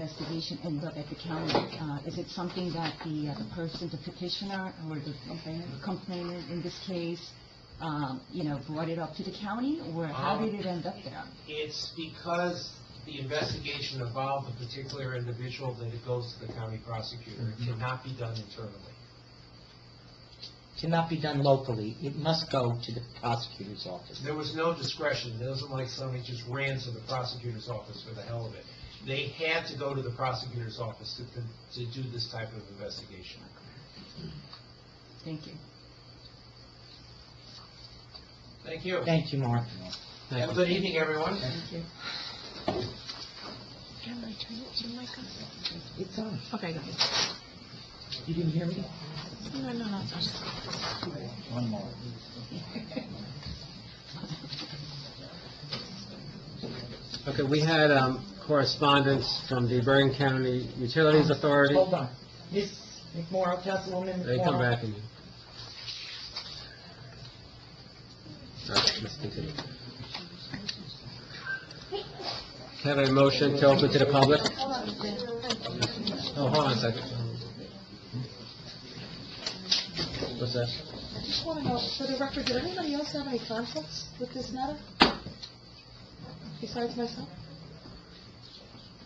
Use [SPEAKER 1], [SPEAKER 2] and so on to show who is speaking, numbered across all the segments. [SPEAKER 1] investigation and look at the county. Uh, Is it something that the uh, the person, the petitioner, or the complainant in this case, um, you know, brought it up to the county, or how
[SPEAKER 2] Um,
[SPEAKER 1] did it end up there?
[SPEAKER 2] It's because the investigation involved a particular individual that it goes to the county prosecutor. It cannot be done internally.
[SPEAKER 3] Cannot be done locally, it must go to the prosecutor's office.
[SPEAKER 2] There was no discretion. It wasn't like somebody just ran to the prosecutor's office for the hell of it. They had to go to the prosecutor's office to, to do this type of investigation.
[SPEAKER 1] Thank you.
[SPEAKER 2] Thank you.
[SPEAKER 3] Thank you, Mark.
[SPEAKER 2] Have a good evening, everyone.
[SPEAKER 1] Thank you.
[SPEAKER 4] Can I turn it to the mic on?
[SPEAKER 3] It's on.
[SPEAKER 4] Okay, go ahead.
[SPEAKER 3] You didn't hear me?
[SPEAKER 4] No, no, no, it's on.
[SPEAKER 3] One more.
[SPEAKER 5] Okay, we had um, correspondence from the Bergen County Utilities Authority.
[SPEAKER 3] Hold on. Ms. McMorro, Councilwoman McMorro.
[SPEAKER 5] They come back and... All right, let's continue. Can I Have a motion to open to the public? Oh, hold on a second. What's that?
[SPEAKER 4] I just want to know, for the record, did anybody else have any conflicts with this matter? Besides myself?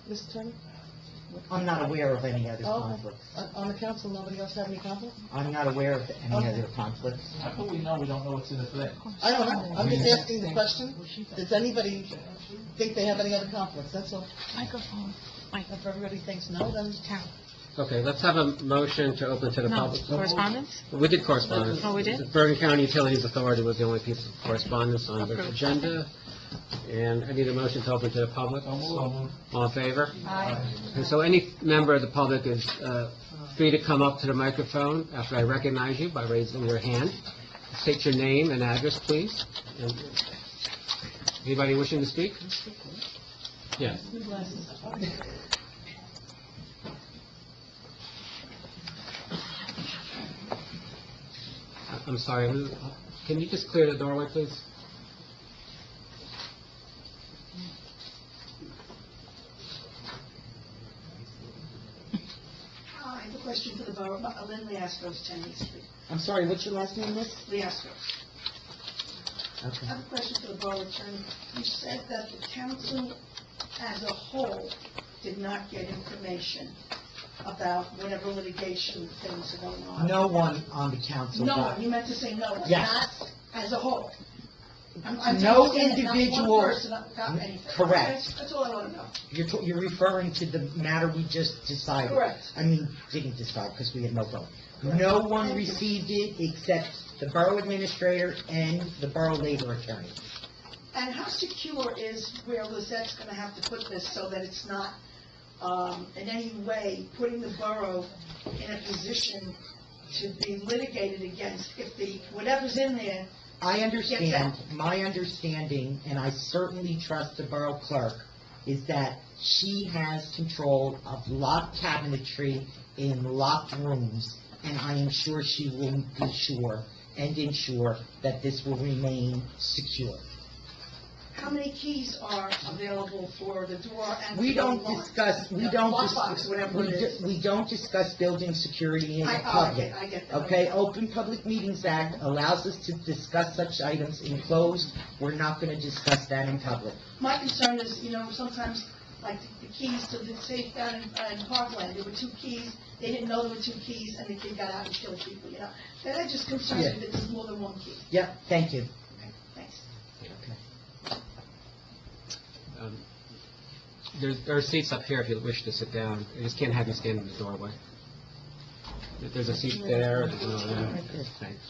[SPEAKER 4] Mr. Attorney?
[SPEAKER 3] I'm not aware of any other
[SPEAKER 4] Oh,
[SPEAKER 3] conflicts.
[SPEAKER 4] On on the council, nobody else have any conflict?
[SPEAKER 3] I'm not aware of any
[SPEAKER 4] Okay.
[SPEAKER 3] other conflicts.
[SPEAKER 6] How come we know we don't know what's in the thing?
[SPEAKER 4] I don't know, I'm just asking the question, does anybody think they have any other conflicts, that's all.
[SPEAKER 7] Microphone.
[SPEAKER 4] If everybody thinks no, then count.
[SPEAKER 5] Okay, let's have a motion to open to the
[SPEAKER 7] No,
[SPEAKER 5] public.
[SPEAKER 7] correspondence?
[SPEAKER 5] We did correspondence.
[SPEAKER 7] Oh, we did?
[SPEAKER 5] The Bergen County Utilities Authority was the only piece of correspondence on the
[SPEAKER 7] Approved.
[SPEAKER 5] agenda, and I need a motion to open to the public. All in favor? And so any member of the public is uh, free to come up to the microphone after I recognize you by raising your hand. State your name and address, please. And Anybody wishing to speak? Yes. I- I'm sorry, who- can you just clear the doorway, please?
[SPEAKER 8] Uh, I have a question for the borough, uh, Lynn Leascos, 10 East Street.
[SPEAKER 3] I'm sorry, what's your last name, Miss?
[SPEAKER 8] Leascos. I
[SPEAKER 3] Okay.
[SPEAKER 8] have a question for the borough attorney. You said that the council as a whole did not get information about whatever litigation things are going on.
[SPEAKER 3] No one on the council.
[SPEAKER 8] No,
[SPEAKER 3] got-
[SPEAKER 8] you meant to say no,
[SPEAKER 3] Yes.
[SPEAKER 8] not as a whole. I'm- I'm
[SPEAKER 3] No
[SPEAKER 8] saying that not one
[SPEAKER 3] individual.
[SPEAKER 8] person got anything.
[SPEAKER 3] Correct.
[SPEAKER 8] That's- That's all I want to know.
[SPEAKER 3] You're, t- you're referring to the matter we just decided.
[SPEAKER 8] Correct.
[SPEAKER 3] I mean, didn't decide, because we had no vote. No one received it except the borough administrator and the borough labor attorney.
[SPEAKER 8] And how secure is where Lizette's going to have to put this so that it's not um, in any way putting the borough in a position to be litigated against if the, whatever's in there,
[SPEAKER 3] I understand, my understanding, and I certainly trust the borough clerk, is that she has control of locked cabinetry in locked rooms, and I am sure she will be sure and ensure that this will remain secure.
[SPEAKER 8] how many keys are available for the door and
[SPEAKER 3] We
[SPEAKER 8] the door
[SPEAKER 3] don't
[SPEAKER 8] lock?
[SPEAKER 3] discuss, we
[SPEAKER 8] The
[SPEAKER 3] don't.
[SPEAKER 8] lock
[SPEAKER 3] dis-
[SPEAKER 8] box, whatever
[SPEAKER 3] we
[SPEAKER 8] it
[SPEAKER 3] do-
[SPEAKER 8] is.
[SPEAKER 3] We don't discuss building security in
[SPEAKER 8] I- oh, I
[SPEAKER 3] public.
[SPEAKER 8] get- I get that.
[SPEAKER 3] Okay, Open Public Meetings Act allows us to discuss such items in closed. We're not gonna discuss that in public.
[SPEAKER 8] My concern is, you know, sometimes, like, the keys to the safe down in, uh, in Parkland, there were two keys, they didn't know there were two keys, and the kid got out and killed people, you know? That just concerns me that there's more than one key.
[SPEAKER 3] Yep, thank you.
[SPEAKER 8] Thanks.
[SPEAKER 5] Um, There there are seats up here if you wish to sit down. You just can't have you stand in the doorway. If There's a seat there. there's another one. Thanks.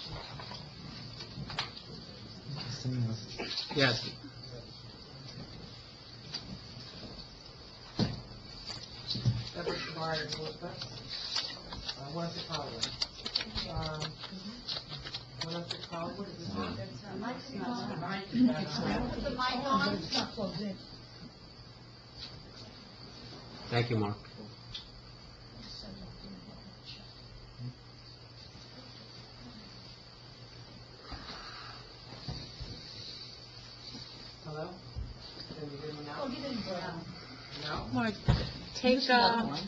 [SPEAKER 3] Someone else.
[SPEAKER 5] Yes.
[SPEAKER 9] Deborah Schreier, Elizabeth. Uh, West Hollywood. Um, West Hollywood, is this it?
[SPEAKER 5] Thank you, Mark.
[SPEAKER 9] Hello? Can you hear me now? No?
[SPEAKER 7] Mark,
[SPEAKER 10] take,
[SPEAKER 1] Here's another
[SPEAKER 10] uh,
[SPEAKER 1] one.